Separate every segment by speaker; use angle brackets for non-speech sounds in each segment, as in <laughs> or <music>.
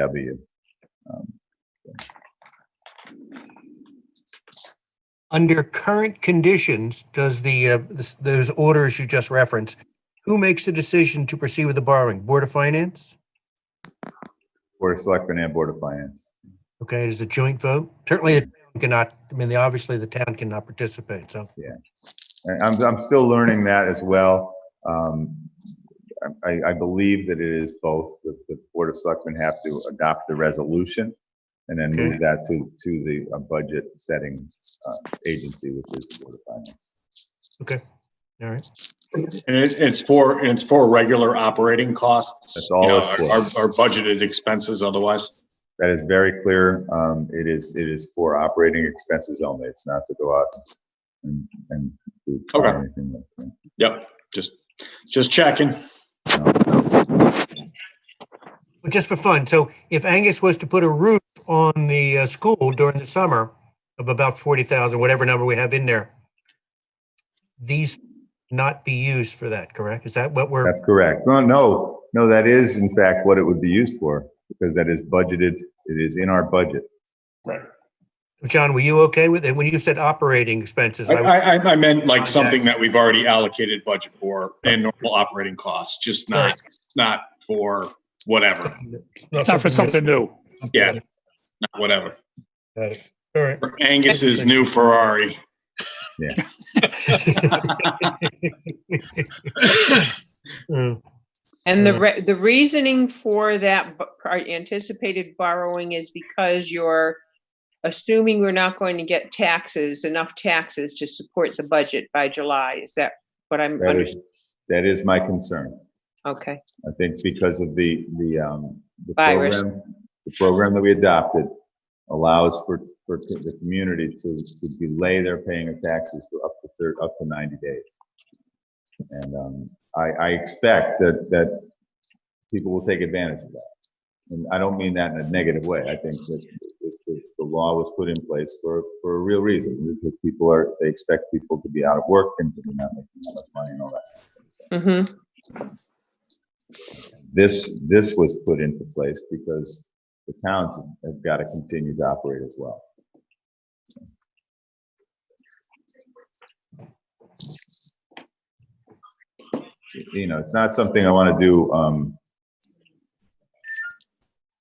Speaker 1: Abby. um,
Speaker 2: Under current conditions, does the, uh, this- those orders you just referenced, who makes the decision to proceed with the borrowing? Board of Finance?
Speaker 1: Board of Selectmen and Board of Finance.
Speaker 2: Okay, it is a joint vote. Certainly, the town cannot, I mean, the- obviously, the town cannot participate, so.
Speaker 1: And I'm, I'm still learning that as well. Um, I, I believe that it is both, that the Board of Selectmen have to adopt the resolution and then move
Speaker 2: Okay.
Speaker 1: that to, to the uh, budget setting uh, agency, which is the Board of Finance.
Speaker 2: All right,
Speaker 3: And it, it's for, it's for regular operating costs.
Speaker 1: That's all
Speaker 3: you know,
Speaker 1: it's for.
Speaker 3: Our, our budgeted expenses otherwise.
Speaker 1: That is very clear. Um, It is, it is for operating expenses only. It's not to go out and, and do
Speaker 3: Okay.
Speaker 1: anything like that.
Speaker 3: Yep, just, just checking.
Speaker 2: but just for fun, so if Angus was to put a roof on the uh, school during the summer of about 40,000, whatever number we have in there, these not be used for that, correct? Is that what we're,
Speaker 1: That's correct. No, no, no, that is in fact what it would be used for, because that is budgeted, it is in our budget.
Speaker 3: Right.
Speaker 2: John, were you okay with it? When you said operating expenses,
Speaker 3: I,
Speaker 2: I-
Speaker 3: I, I- I meant like something that we've already allocated budget for and normal operating costs, just not, not for whatever,
Speaker 4: Not for something new.
Speaker 3: yeah. not whatever.
Speaker 2: Got it. All right.
Speaker 3: Angus is new Ferrari.
Speaker 2: Mm. <laughs>
Speaker 5: And the
Speaker 2: Yeah.
Speaker 5: re- the reasoning for that b- our anticipated borrowing is because you're assuming we're not going to get taxes, enough taxes to support the budget by July. Is that what I'm
Speaker 1: That is,
Speaker 5: understanding?
Speaker 1: that is my concern.
Speaker 5: Okay,
Speaker 1: I think because of the, the, um, the
Speaker 5: Virus.
Speaker 1: program, the program that we adopted allows for, for the community to, to delay their paying of taxes for up to third, up to 90 days. And, um, I, I expect that, that people will take advantage of that. And I don't mean that in a negative way. I think that it's, the, the law was put in place for, for a real reason, because people are, they expect people to be out of work and to be not making that much money and all that.
Speaker 5: hmm
Speaker 1: This, this was put into place because the towns have got to continue to operate as well. You know, it's not something I want to do, um,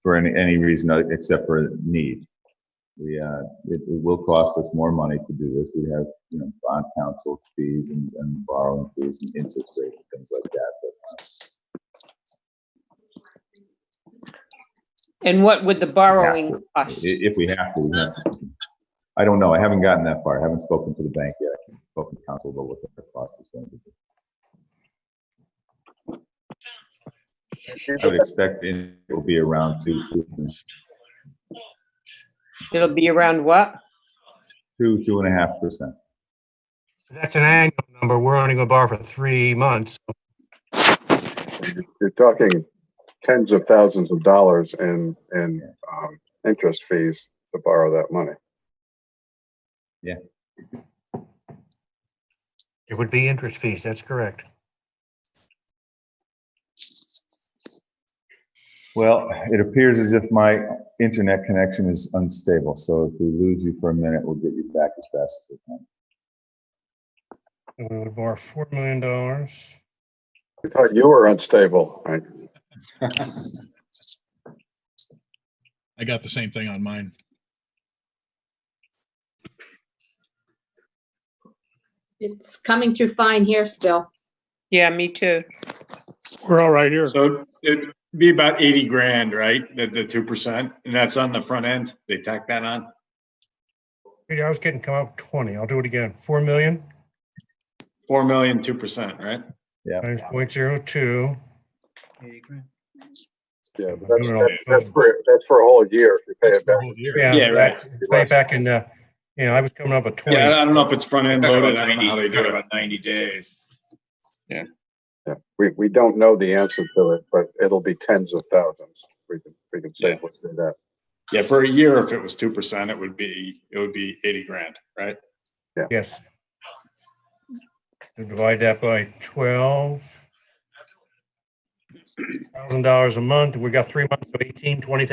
Speaker 1: for any, any reason other- except for need. We, uh, it, it will cost us more money to do this. We have, you know, bond council fees and, and borrowing fees and interest rates, and things like that. But
Speaker 5: And what would the borrowing
Speaker 1: I-
Speaker 5: cost?
Speaker 1: If we have to, we have to. I don't know. I haven't gotten that far. I haven't spoken to the bank yet. I haven't Spoken to council about what the cost is going to be. I would expect it will be around two, two,
Speaker 5: It'll be around what?
Speaker 1: two, two and a half percent.
Speaker 2: That's an annual number. We're only going to borrow for three months.
Speaker 6: you're talking tens of thousands of dollars in, in, um, interest fees to borrow that money.
Speaker 2: It would be interest fees. That's correct.
Speaker 1: Well, it appears as if my internet connection is unstable. So if we lose you for a minute, we'll get you back as fast as we can.
Speaker 2: We would borrow four million dollars.
Speaker 6: I thought you were unstable. I-
Speaker 4: I got the same thing on mine.
Speaker 7: It's coming through fine here still.
Speaker 5: Yeah, me too.
Speaker 4: We're all right here.
Speaker 3: So it'd be about 80 grand, right? The, the 2%, and that's on the front end. They tack that on.
Speaker 2: I was getting come up twenty. I'll do it again. Four million
Speaker 3: 4 million, 2%, right?
Speaker 2: times point zero two.
Speaker 6: Yeah, but that's, that's- that's for, that's for a whole year. if You pay it back.
Speaker 2: Yeah,
Speaker 3: Yeah, right.
Speaker 2: that's way back in, uh, you know, I was coming up with twenty.
Speaker 3: Yeah, I don't know if it's front end loaded. I don't know how they do it.
Speaker 8: About ninety days.
Speaker 6: Yeah. We, we don't know the answer to it, but it'll be tens of thousands. We can, we can safely say that.
Speaker 3: Yeah, for a year, if it was 2%, it would be, it would be 80 grand, right?
Speaker 2: Yes. So Divide that by twelve. Thousand dollars a month. We got three months of eighteen, twenty